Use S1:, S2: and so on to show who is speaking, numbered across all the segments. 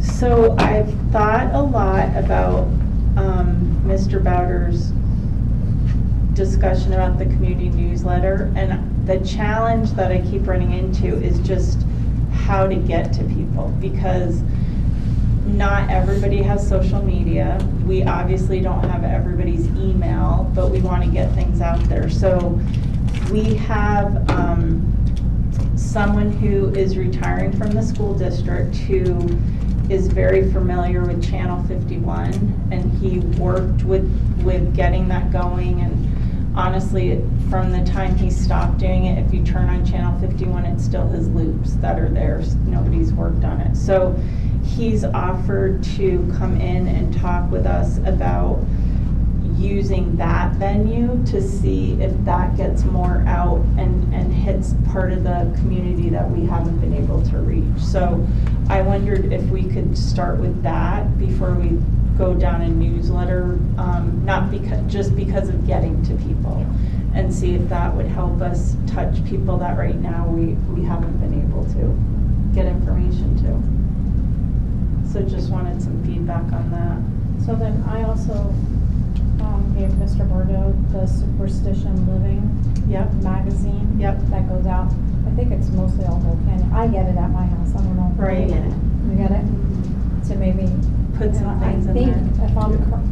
S1: So I've thought a lot about um, Mr. Bowder's discussion about the community newsletter, and the challenge that I keep running into is just how to get to people, because not everybody has social media. We obviously don't have everybody's email, but we want to get things out there. So we have um, someone who is retiring from the school district who is very familiar with Channel 51, and he worked with, with getting that going, and honestly, from the time he stopped doing it, if you turn on Channel 51, it's still his loops that are there, s- nobody's worked on it. So he's offered to come in and talk with us about using that venue to see if that gets more out and, and hits part of the community that we haven't been able to reach. So I wondered if we could start with that before we go down a newsletter, um, not because, just because of getting to people. And see if that would help us touch people that right now we, we haven't been able to get information to. So just wanted some feedback on that.
S2: So then I also um, gave Mr. Bordeaux the Superstition Living
S1: Yep,
S2: magazine.
S1: Yep.
S2: That goes out, I think it's mostly all Hope Canyon. I get it at my house, I don't know.
S1: right. Mm-hmm.
S2: You get it? So maybe.
S1: Put some
S2: and I
S1: things in
S2: think
S1: there.
S2: If I'm, cor-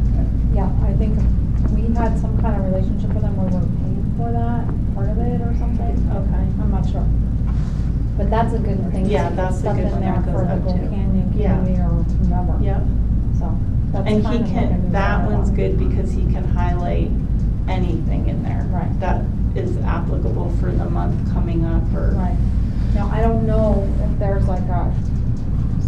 S2: yeah, I think we had some kind of relationship with them where we're paying for that, part of it or something.
S1: Okay.
S2: I'm not sure. But that's a good thing.
S1: Yeah, that's a good one that goes out
S2: Stuff in there for the
S1: too.
S2: Hope Canyon
S1: Yeah.
S2: community or whomever.
S1: Yep,
S2: So that's
S1: and he
S2: kind of like a
S1: can,
S2: new
S1: that
S2: dialogue.
S1: one's good because he can highlight anything in there.
S2: Right.
S1: That is applicable for the month coming up or,
S2: Right. Now, I don't know if there's like a,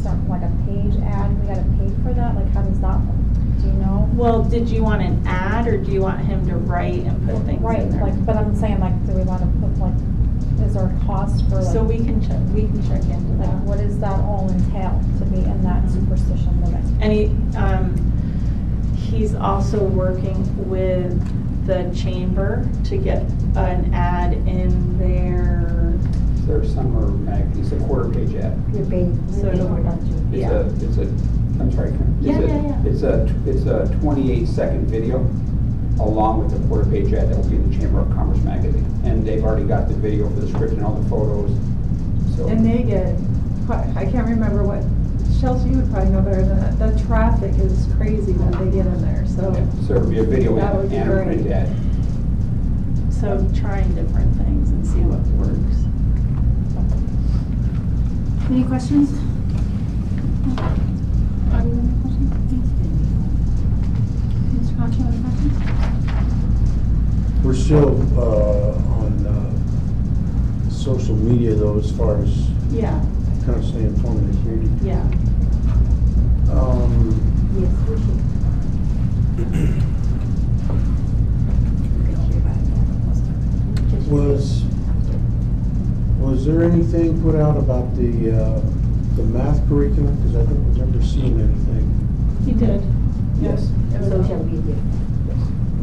S2: some, like a page ad, we gotta pay for that, like how does that, work? do you know?
S1: well, did you want an ad or do you want him to write and put things
S2: Right,
S1: in there?
S2: like, but I'm saying like, do we wanna put like, is there a cost for
S1: So
S2: like,
S1: we can check, we can check into
S2: like
S1: that.
S2: what does that all entail to be in that superstition living?
S1: And he, um, he's also working with the chamber to get an ad in there.
S3: Their summer mag, it's a quarter page ad.
S4: Your baby.
S1: So it'll work out
S3: It's a, it's a, I'm sorry, Karen. It's
S1: Yeah,
S3: a-
S1: yeah, yeah.
S3: It's a, it's a twenty-eight second video along with a quarter page ad that will be in the Chamber of Commerce magazine. And they've already got the video for the script and all the photos, so.
S5: And they get, quite- I can't remember what, Chelsea, you would probably know better than that, the traffic is crazy when they get in there, so.
S3: yeah, So it'll be a video
S5: oh. That would be
S3: and and a
S5: great.
S3: print ad.
S1: So trying different things and see what works.
S6: Any questions? Are you any questions? Thanks. Mr. Concho, any questions?
S7: We're still uh, on uh, social media though, as far as
S1: Yeah,
S7: constantly informing the community.
S1: yeah.
S7: Um,
S4: Yes, we should.
S7: Was, was there anything put out about the, uh, the math curriculum? Because I don't remember seeing anything.
S1: He did.
S3: Yes.
S4: Social media.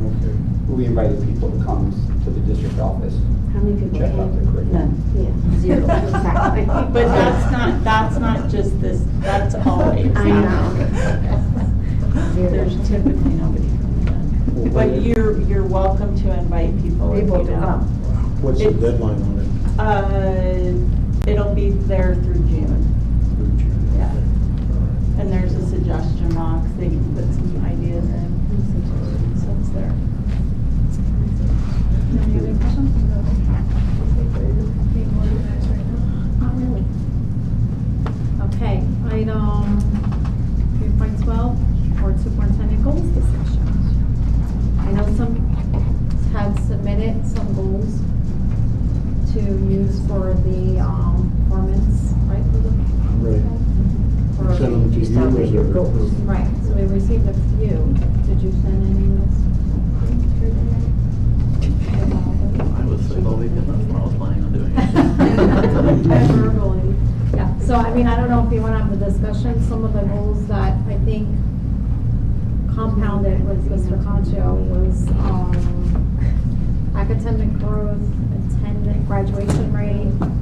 S7: Okay.
S3: We invited people to come to the district office.
S4: How many people
S3: Check out the
S4: came?
S3: curriculum.
S4: None, yeah, zero, exactly.
S1: But that's not, that's not just this, that's always.
S4: I know. Zero.
S1: There's typically nobody coming in. But you're, you're welcome to invite people if you
S4: People
S1: don't.
S4: to come.
S7: What's the
S1: It's-
S7: deadline on it?
S1: Uh, it'll be there through June,
S7: Through June?
S1: Yeah.
S7: Okay. All right.
S1: and there's a suggestion box, they can put some ideas in, so it's there.
S6: Any other questions?
S5: Being organized right now.
S6: Not really. Okay, item three point twelve, board superintendent goals discussion. I know some had submitted some goals to use for the, um, performance, right, for the
S7: Right.
S6: for
S7: Send them to
S4: Just
S7: you as
S4: outdated goals.
S7: a.
S6: Right, so we received a few. Did you send any notes?
S8: I was like, well, we did that's what I was planning on doing.
S6: Verbally. Yeah, so I mean, I don't know if you want to have a discussion, some of the goals that I think compounded with Mr. Concho was, um, academic growth, attendant graduation rate,